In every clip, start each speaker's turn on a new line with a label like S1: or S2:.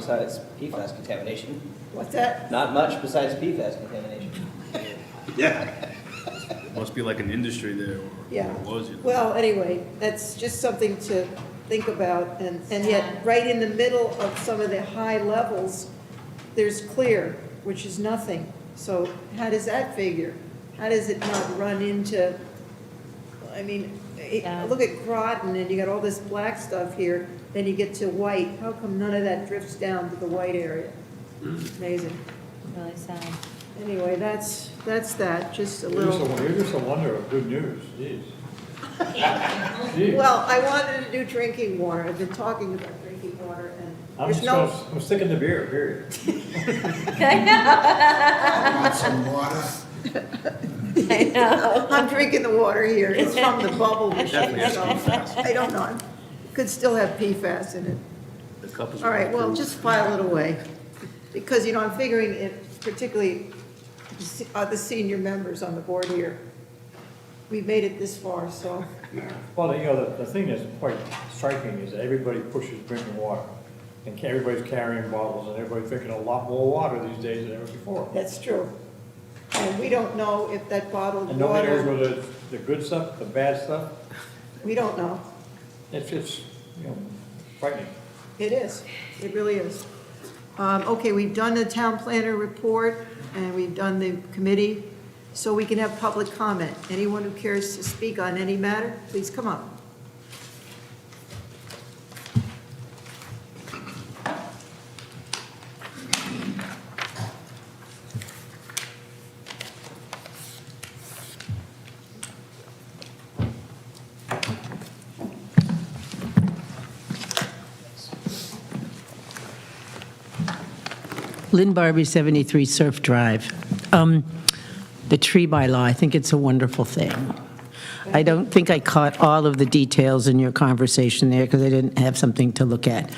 S1: besides PFAS contamination.
S2: What's that?
S1: Not much besides PFAS contamination.
S3: Yeah.
S4: Must be like an industry there, or
S2: Yeah.
S4: or was it?
S2: Well, anyway, that's just something to think about, and, and yet, right in the middle of some of the high levels, there's clear, which is nothing. So how does that figure? How does it not run into, I mean, it-
S5: Yeah.
S2: look at Groton, and you got all this black stuff here, then you get to white. How come none of that drifts down to the white area? Amazing.
S5: Really sad.
S2: Anyway, that's, that's that, just a
S6: You're just
S2: little.
S6: a, you're just a wonder of good news, jeez. Jeez.
S2: Well, I wanted to do drinking water, I've been talking about drinking water, and
S6: I'm
S2: there's
S6: just
S2: no,
S6: gonna, I'm sticking to beer, period.
S7: Want some water?
S5: I know.
S2: I'm drinking the water here, it's from the bubble
S4: Definitely
S2: machine,
S4: has
S2: so
S4: PFAS.
S2: I don't know. Could still have PFAS in it.
S4: The cup is.
S2: All right, well,
S4: waterproof.
S2: just file it away, because, you know, I'm figuring it, particularly the se- uh, the senior members on the board here. We made it this far, so,
S6: Well, you know, the, the thing that's quite striking is that everybody pushes drinking water. And ca- everybody's carrying bottles and everybody's drinking a lot more water these days than ever before.
S2: that's true. And we don't know if that bottled
S6: And nobody knows
S2: water,
S6: whether it's the good stuff, the bad stuff,
S2: we don't know.
S6: it's just, you know, frightening.
S2: It is, it really is. Um, Okay, we've done the town planner report, and we've done the committee, so we can have public comment. Anyone who cares to speak on any matter, please come up.
S8: Lynn Barbie, 73 Surf Drive. Um, The tree bylaw, I think it's a wonderful thing. I don't think I caught all of the details in your conversation there because I didn't have something to look at.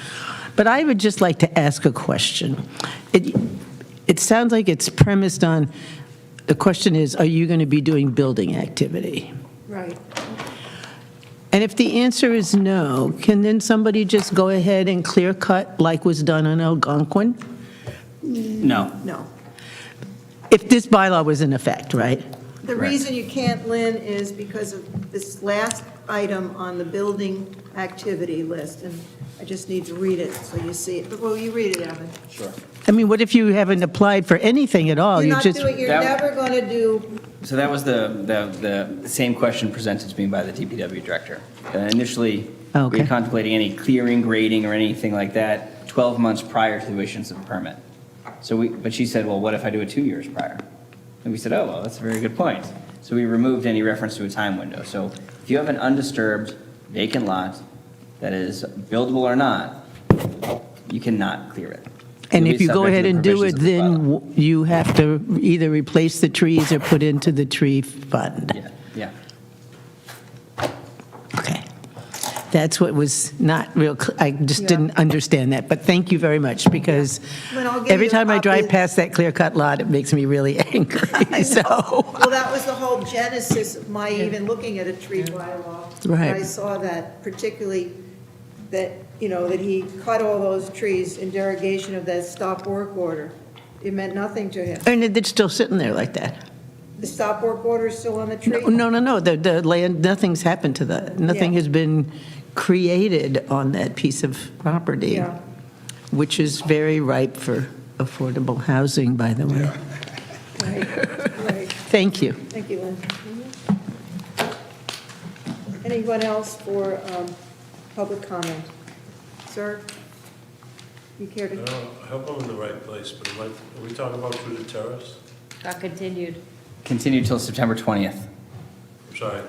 S8: But I would just like to ask a question. It it sounds like it's premised on, the question is, are you going to be doing building activity?
S2: Right.
S8: And if the answer is no, can then somebody just go ahead and clear cut like was done on Algonquin?
S9: No,
S2: No.
S8: If this bylaw was in effect, right?
S2: The reason you can't, Lynn, is because of this last item on the building activity list, and I just need to read it so you see it. But Well, you read it, Evan.
S8: I mean, what if you haven't applied for anything at all?
S2: You're
S8: You
S2: not
S8: just,
S2: doing, you're
S9: That-
S2: never going to do,
S9: so that was the, the, the same question presented to me by the DPW director. Uh, Initially, we
S8: Okay.
S9: were contemplating any clearing, grading, or anything like that 12 months prior to the issuance of a permit. So we, but she said, well, what if I do it two years prior? And we said, oh, well, that's a very good point. So we removed any reference to a time window. So if you have an undisturbed vacant lot that is buildable or not, you cannot clear it.
S8: and
S9: You'll
S8: if
S9: be
S8: you go
S9: subject to
S8: ahead
S9: the
S8: and do
S9: provisions
S8: it,
S9: of the bylaw.
S8: then w- you have to either replace the trees or put into the tree fund.
S9: Yeah, yeah.
S8: Okay. That's what was not real, cl- I just didn't understand that, but thank you very much, because
S2: Lynn, I'll give you
S8: every
S2: a
S8: time I drive
S2: copy.
S8: past that clear-cut lot, it makes me really angry, so.
S2: well, that was the whole genesis of my even looking at a tree bylaw.
S8: Right.
S2: I saw that particularly, that, you know, that he cut all those trees in derogation of that stop work order. It meant nothing to him.
S8: And it's still sitting there like that.
S2: The stop work order is still on the tree?
S8: No, no, no, the, the land, nothing's happened to that. Nothing
S2: Yeah.
S8: has been created on that piece of property.
S2: Yeah.
S8: which is very ripe for affordable housing, by the way.
S2: Right, right.
S8: Thank you.
S2: Thank you, Lynn. Anyone else for um, public comment? Sir? You care
S10: I
S2: to?
S10: don't- I hope I'm in the right place, but am I, are we talking about through the terrace?
S5: Got continued.
S9: Continue till September 20th.
S10: I'm sorry.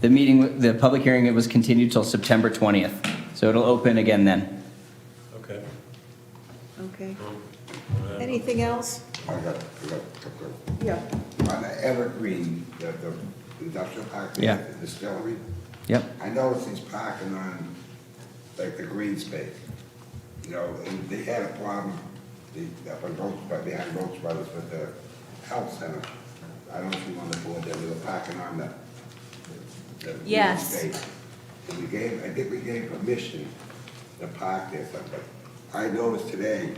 S9: The meeting, the public hearing, it was continued till September 20th, so it'll open again then.
S10: Okay.
S2: Okay.
S10: Well, uh,
S2: Anything else?
S7: I got, I got, I
S2: Yeah.
S7: got- On the Evergreen, the, the industrial park, there
S9: Yeah.
S7: at the distillery,
S9: Yep.
S7: I noticed he's parking on, like, the green space. You know, and they had a problem, the, up on Rhodes, Brothers- behind Rhodes Brothers with the health center. I don't know if you want to board there, they were parking on the, the green
S5: Yes.
S7: space. And we gave, I think we gave permission to park there, but but I noticed today,